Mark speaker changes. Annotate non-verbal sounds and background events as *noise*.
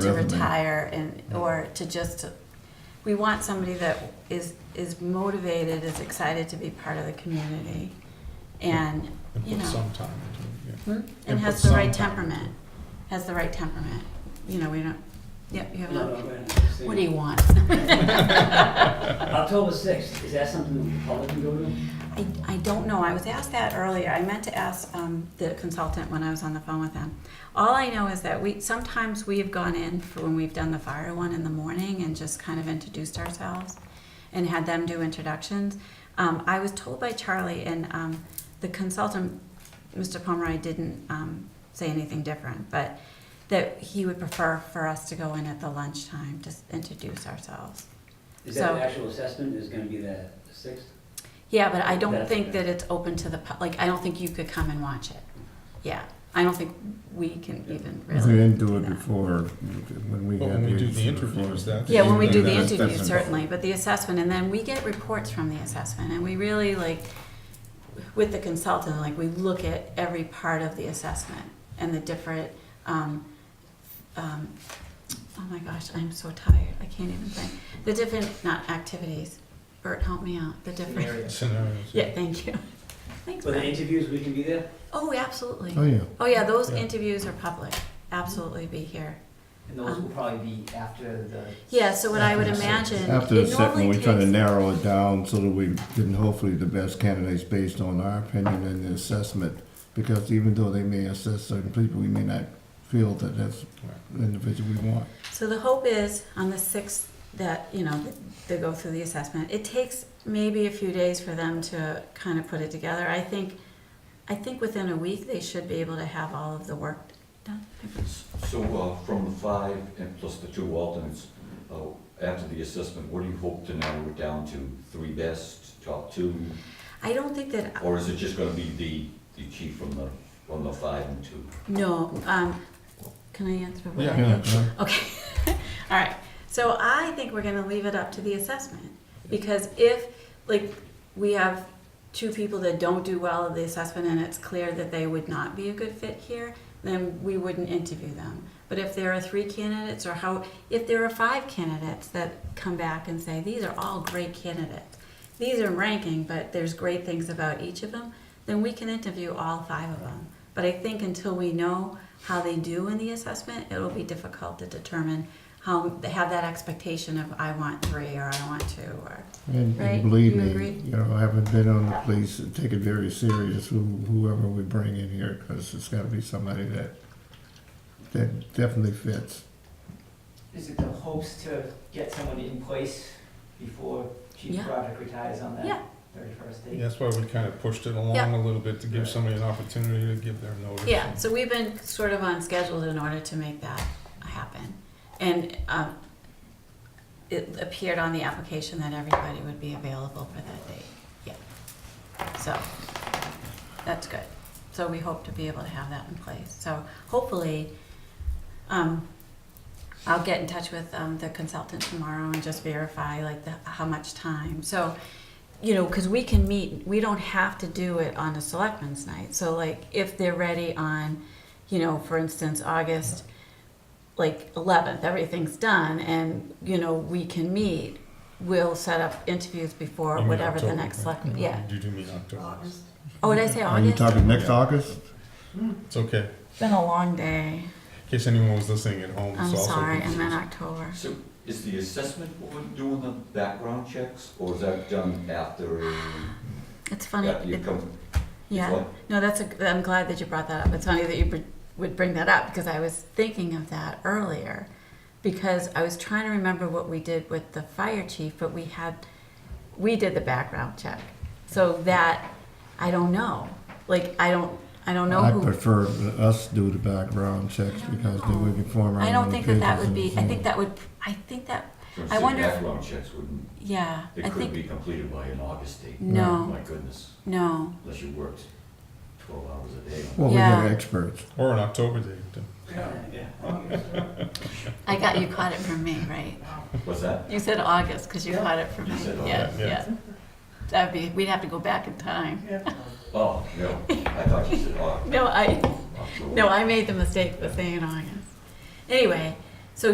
Speaker 1: to
Speaker 2: Revenue.
Speaker 1: retire and, or to just, we want somebody that is, is motivated, is excited to be part of the community and,
Speaker 3: And
Speaker 1: you
Speaker 3: put
Speaker 1: know,
Speaker 3: some time into it, yeah.
Speaker 1: and
Speaker 3: put
Speaker 1: has the right
Speaker 3: some time into
Speaker 1: temperament, has the right temperament. You know, we don't, yep, you have,
Speaker 4: No,
Speaker 1: a-
Speaker 4: no, wait a minute.
Speaker 1: what do you want?
Speaker 4: October sixth, is that something that the public can go to?
Speaker 1: I, I don't know. I was asked that earlier. I meant to ask um, the consultant when I was on the phone with them. All I know is that we sometimes we have gone in for when we've done the fire one in the morning and just kind of introduced ourselves and had them do introductions. Um, I was told by Charlie and um, the consultant, Mr. Pomeroy, didn't um, say anything different, but that he would prefer for us to go in at the lunchtime to s- introduce ourselves.
Speaker 4: Is that
Speaker 1: So-
Speaker 4: the actual assessment is gonna be the sixth?
Speaker 1: Yeah, but I don't
Speaker 4: That's
Speaker 1: think
Speaker 4: okay.
Speaker 1: that it's open to the, pu- like, I don't think you could come and watch it. Yeah, I don't think we can
Speaker 4: Yeah.
Speaker 1: even
Speaker 2: They
Speaker 1: really.
Speaker 2: didn't do it
Speaker 1: that.
Speaker 2: before, when we
Speaker 3: Well,
Speaker 2: had
Speaker 3: when we do the
Speaker 2: sort of-
Speaker 3: interviews, that's-
Speaker 1: Yeah, when we do the
Speaker 2: That's- that's
Speaker 1: interview,
Speaker 2: an-
Speaker 1: certainly, but the assessment, and then we get reports from the assessment, and we really like, with the consultant, like, we look at every part of the assessment and the different, um, um, oh my gosh, I'm so tired, I can't even think. The different, not activities, Bert, help me out, the different,
Speaker 3: Scenarios.
Speaker 1: yeah, thank you. Thanks,
Speaker 4: For the
Speaker 1: Bert.
Speaker 4: interviews, we can be there?
Speaker 1: Oh, absolutely.
Speaker 2: Oh, yeah.
Speaker 1: Oh yeah, those
Speaker 3: Yeah.
Speaker 1: interviews are public. Absolutely be here.
Speaker 5: And those will
Speaker 1: Um,
Speaker 5: probably be after the.
Speaker 1: Yeah, so what I would
Speaker 5: After the
Speaker 1: imagine
Speaker 2: After
Speaker 1: it
Speaker 2: the second,
Speaker 1: normally
Speaker 2: we try to
Speaker 1: takes
Speaker 2: narrow it down so that we can hopefully the best candidates based on our opinion and the assessment. Because even though they may assess certain people, we may not feel that that's the individual we want.
Speaker 1: so the hope is on the sixth that, you know, they go through the assessment. It takes maybe a few days for them to kind of put it together. I think I think within a week they should be able to have all of the work done.
Speaker 6: So uh, from the five and plus the two alternates, uh, after the assessment, what do you hope to narrow it down to? Three best, top two?
Speaker 1: I don't think that
Speaker 6: Or is it just gonna be the, the chief from the, from the five and two?
Speaker 1: no, um, can I answer? what I
Speaker 3: Yeah.
Speaker 1: think?
Speaker 2: Yeah, right?
Speaker 1: *laughs* Okay, all right. So I think we're gonna leave it up to the assessment. Because if, like, we have two people that don't do well at the assessment and it's clear that they would not be a good fit here, then we wouldn't interview them. But if there are three candidates or how, if there are five candidates that come back and say, these are all great candidates, these are ranking, but there's great things about each of them, then we can interview all five of them. But I think until we know how they do in the assessment, it'll be difficult to determine how, have that expectation of, I want three, or I want two, or.
Speaker 2: And
Speaker 1: Right?
Speaker 2: and believe
Speaker 1: You agree?
Speaker 2: me, you know, having been on the police, take it very serious, who- whoever we bring in here, because it's gotta be somebody that, that definitely fits.
Speaker 5: Is it the hopes to get someone in place before Chief
Speaker 1: Yeah.
Speaker 5: Broderick retires on
Speaker 1: Yeah.
Speaker 5: that thirty-first day?
Speaker 3: Yeah, That's why we kind of pushed it along
Speaker 1: Yeah.
Speaker 3: a little bit to give somebody an opportunity to give their notice.
Speaker 1: Yeah, so we've been sort of on schedule in order to make that happen. And um, it appeared on the application that everybody would be available for that date, yeah. So, that's good. So we hope to be able to have that in place. So hopefully, um, I'll get in touch with um, the consultant tomorrow and just verify like the, how much time. So, you know, because we can meet, we don't have to do it on a selectmen's night. So like if they're ready on, you know, for instance, August, like 11th, everything's done and, you know, we can meet, we'll set up interviews
Speaker 3: You
Speaker 1: before
Speaker 3: mean
Speaker 1: whatever the
Speaker 3: October,
Speaker 1: next
Speaker 3: right?
Speaker 1: selectman, yeah.
Speaker 3: You do mean October.
Speaker 1: Oh, did I say
Speaker 2: Are you
Speaker 1: August?
Speaker 2: talking next August?
Speaker 3: It's okay.
Speaker 1: It's been a long day.
Speaker 3: In case anyone was listening at home,
Speaker 1: I'm
Speaker 3: it's also.
Speaker 1: sorry, I meant October.
Speaker 6: So is the assessment board doing the background checks, or is that done after,
Speaker 1: It's funny.
Speaker 6: after you
Speaker 1: it-
Speaker 6: come?
Speaker 1: Um, Yeah.
Speaker 6: What?
Speaker 1: No, that's a, I'm glad that you brought that up. It's funny that you br- would bring that up because I was thinking of that earlier because I was trying to remember what we did with the fire chief, but we had we did the background check. So that I don't know. Like I don't I don't know
Speaker 2: I
Speaker 1: who
Speaker 2: prefer us do the background checks
Speaker 1: I don't
Speaker 2: because then we
Speaker 1: know.
Speaker 2: can form our
Speaker 1: I don't
Speaker 2: own
Speaker 1: think that that
Speaker 2: opinions
Speaker 1: would be I
Speaker 2: and-
Speaker 1: think that would I think that
Speaker 6: So
Speaker 1: I wonder if-
Speaker 6: Background checks wouldn't,
Speaker 1: yeah,
Speaker 6: they
Speaker 1: I
Speaker 6: couldn't
Speaker 1: think
Speaker 6: be completed by an August date.
Speaker 1: No.
Speaker 6: My goodness,
Speaker 1: no.
Speaker 6: unless you worked twelve hours a day.
Speaker 2: Well, we got
Speaker 1: Yeah.
Speaker 2: experts.
Speaker 3: Or an October date. too.
Speaker 4: Yeah.
Speaker 1: I got you caught it from me, right?
Speaker 6: What's that?
Speaker 1: You said August because you
Speaker 4: Yeah.
Speaker 1: caught it from
Speaker 6: You
Speaker 1: me.
Speaker 6: said
Speaker 1: Yes,
Speaker 3: August. Yeah.
Speaker 1: yes. That'd be, we'd have to go back in time.
Speaker 6: Oh, no, I thought you said August.
Speaker 1: No, I,
Speaker 6: October.
Speaker 1: no, I made the mistake of saying August. Anyway,